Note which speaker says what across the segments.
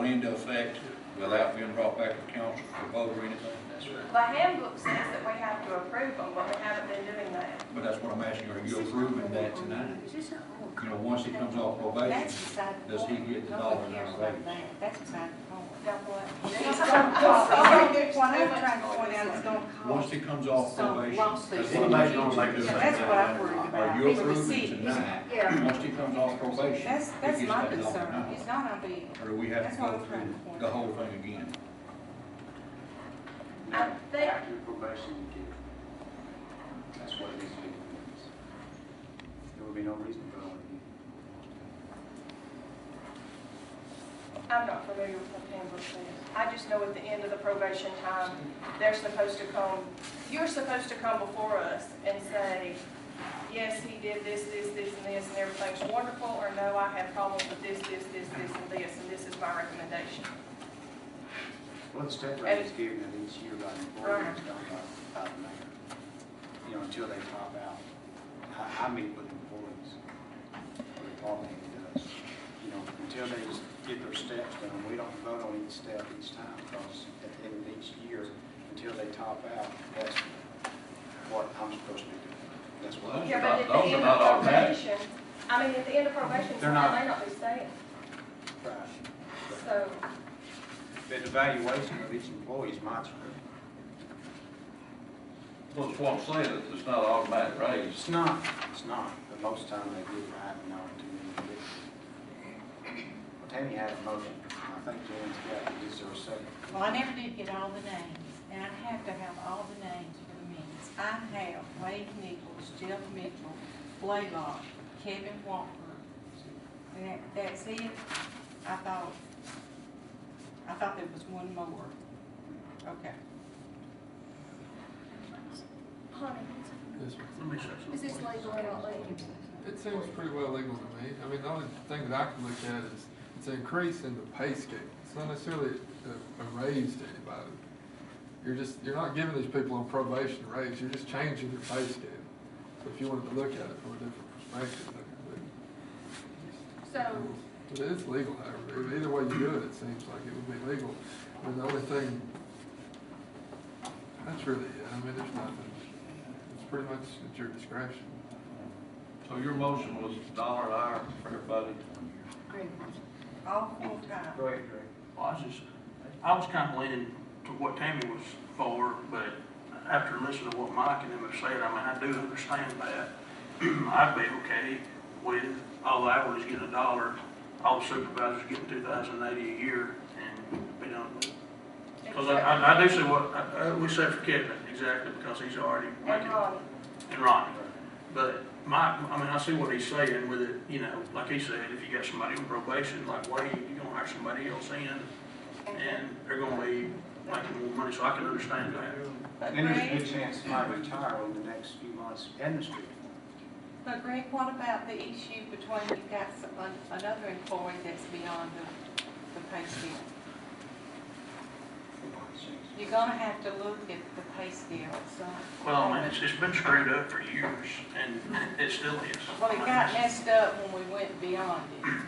Speaker 1: effect without being brought back to council for vote or anything? That's right.
Speaker 2: The handbook says that we have to approve them, but we haven't been doing that.
Speaker 1: But that's what I'm asking, are you approving that tonight? You know, once he comes off probation,
Speaker 3: That's beside the
Speaker 1: Does he
Speaker 3: point.
Speaker 1: get the
Speaker 3: Nobody
Speaker 1: dollar an
Speaker 3: cares
Speaker 1: hour
Speaker 3: about
Speaker 1: raise?
Speaker 3: that. That's beside the point.
Speaker 2: Got what?
Speaker 3: What I'm trying to point out is gonna
Speaker 1: once
Speaker 3: cost
Speaker 1: he comes off
Speaker 3: some
Speaker 1: probation.
Speaker 3: lawsuits.
Speaker 1: that's what I'm
Speaker 4: Anybody gonna make
Speaker 1: asking.
Speaker 4: this
Speaker 3: Yeah, that's what I'm
Speaker 1: Are
Speaker 3: worried about.
Speaker 1: you
Speaker 3: He's a
Speaker 1: approving
Speaker 3: receipt.
Speaker 1: tonight,
Speaker 3: Yeah,
Speaker 1: once he comes off probation?
Speaker 3: that's,
Speaker 1: he
Speaker 3: that's
Speaker 1: gets
Speaker 3: my
Speaker 1: that dollar an
Speaker 3: concern.
Speaker 1: hour?
Speaker 3: It's not gonna be,
Speaker 1: Or do we have to
Speaker 3: That's what
Speaker 1: go
Speaker 3: I'm trying to
Speaker 1: through
Speaker 3: point
Speaker 1: the
Speaker 3: out.
Speaker 1: whole thing again?
Speaker 2: I think-
Speaker 5: After probation, you get it. That's what it is. There would be no reason for all of you.
Speaker 2: I'm not familiar with what the handbook says. I just know at the end of the probation time, they're supposed to come, you're supposed to come before us and say, yes, he did this, this, this, and this, and everything's wonderful, or no, I have problems with this, this, this, this, and this, and this is my recommendation.
Speaker 5: Well, the step rate is given at each year by the employer, it's done by, by the mayor. You know, until they top out. I, I meet with employees, or department head does. You know, until they just get their steps done, we don't vote on each step each time, because at the end of each year, until they top out, that's what I'm supposed to be doing. That's what. I'm-
Speaker 2: Yeah, but at the
Speaker 1: Those are
Speaker 2: end
Speaker 1: not
Speaker 2: of
Speaker 1: automatic.
Speaker 2: probation, I mean, at the end of probation, they
Speaker 5: They're not.
Speaker 2: may not be staying,
Speaker 5: Right.
Speaker 2: so.
Speaker 5: The evaluation of each employee is my choice.
Speaker 6: Well, that's what I'm saying, that it's not automatic raise.
Speaker 5: It's not, it's not, but most time they do have an opportunity to do it. Well, Tammy had a motion, I think Jan's got it, is there a second?
Speaker 3: well, I never did get all the names, and I have to have all the names for the minutes. I have Wade Nichols, Jeff Mitchell, Blaylock, Kevin Walker. And that, that's it. I thought, I thought there was one more. Okay.
Speaker 7: Honey,
Speaker 8: Let me check
Speaker 7: is this legal or not legal?
Speaker 8: It seems pretty well legal to me. I mean, the only thing that I can look at is, it's an increase in the pay scale. It's not necessarily a, a raise to anybody. You're just, you're not giving these people on probation a raise, you're just changing their pay scale. So if you wanted to look at it from a different perspective, that
Speaker 7: So,
Speaker 8: could be. It is legal, however, either way you do it, it seems like it would be legal. I mean, the only thing, that's really, it. I mean, there's nothing, it's pretty much at your discretion.
Speaker 6: So your motion was dollar an hour for everybody?
Speaker 3: All full-time.
Speaker 5: Go ahead, Greg.
Speaker 9: Well, I was just, I was kind of leaning to what Tammy was for, but after listening to what Mike and them have said, I mean, I do understand that. I'd be okay with all the hours getting a dollar, all the supervisors getting two thousand eighty a year, and be done with it. Because I, I I do see what, I, I, we said for Kevin, exactly, because he's already
Speaker 2: And
Speaker 9: making,
Speaker 2: Ronnie,
Speaker 9: and Ronnie. But Mike, I mean, I see what he's saying with it, you know, like he said, if you got somebody on probation, like, why you gonna hire somebody else in? and they're gonna be making more money, so I can understand that.
Speaker 2: but
Speaker 5: And there's a
Speaker 2: Greg,
Speaker 5: good chance he might retire in the next few months, and the street.
Speaker 3: But Greg, what about the issue between you've got some, an- another employee that's beyond the, the pay scale? You're gonna have to look at the pay scale, so.
Speaker 9: Well, I mean, it's, it's been screwed up for years, and it still is.
Speaker 3: Well, it got messed up when we went beyond it.
Speaker 9: I mean,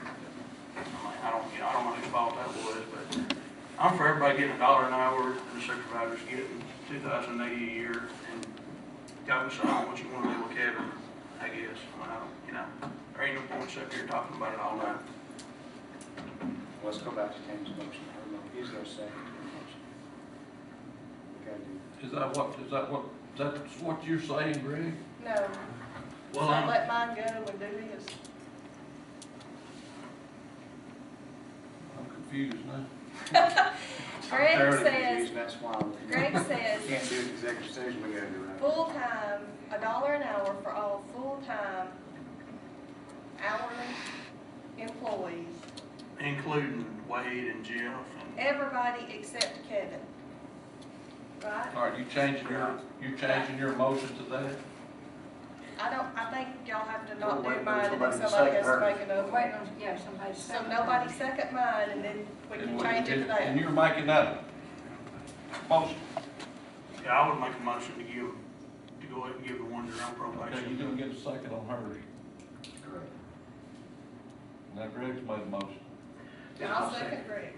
Speaker 9: I don't, you know, I don't know whose fault that was, but I'm for everybody getting a dollar an hour, and the supervisor's getting two thousand eighty a year, and God was saying, what you wanna do with Kevin, I guess, I don't, you know, there ain't no point up here talking about it all night.
Speaker 5: Let's go back to Tammy's motion, her motion, is there a second to her motion? We gotta do,
Speaker 6: Is that what, is that what, that's what you're saying, Greg?
Speaker 2: no,
Speaker 9: Well, I'm,
Speaker 2: let mine go and do this.
Speaker 6: I'm confused now.
Speaker 5: I'm
Speaker 2: Greg
Speaker 5: thoroughly
Speaker 2: says,
Speaker 5: confused, and that's why we
Speaker 2: Greg says,
Speaker 5: can't do an executive session, we gotta do it. after.
Speaker 2: full-time, a dollar an hour for all full-time hourly employees,
Speaker 9: including Wade and Jeff and.
Speaker 2: everybody except Kevin. Right?
Speaker 6: All right, you changing your, you changing your motion to that?
Speaker 2: I don't, I think y'all have to
Speaker 5: We're
Speaker 2: not do
Speaker 5: waiting
Speaker 2: mine
Speaker 5: for
Speaker 2: and then
Speaker 5: somebody to
Speaker 2: somebody has
Speaker 5: second
Speaker 2: to
Speaker 5: her.
Speaker 2: make another.
Speaker 7: wait
Speaker 2: one.
Speaker 7: on, yeah, somebody to
Speaker 2: So
Speaker 7: second.
Speaker 2: nobody second mine and then we can
Speaker 6: And we-
Speaker 2: change it to
Speaker 6: and- And
Speaker 2: that.
Speaker 6: you're making that motion?
Speaker 9: Yeah, I would make a motion to give, to go ahead and give the ones that are on
Speaker 6: Okay, you
Speaker 9: probation.
Speaker 6: didn't get a second on hers.
Speaker 5: Correct.
Speaker 6: Now Greg's made a motion.
Speaker 2: I'll second Greg.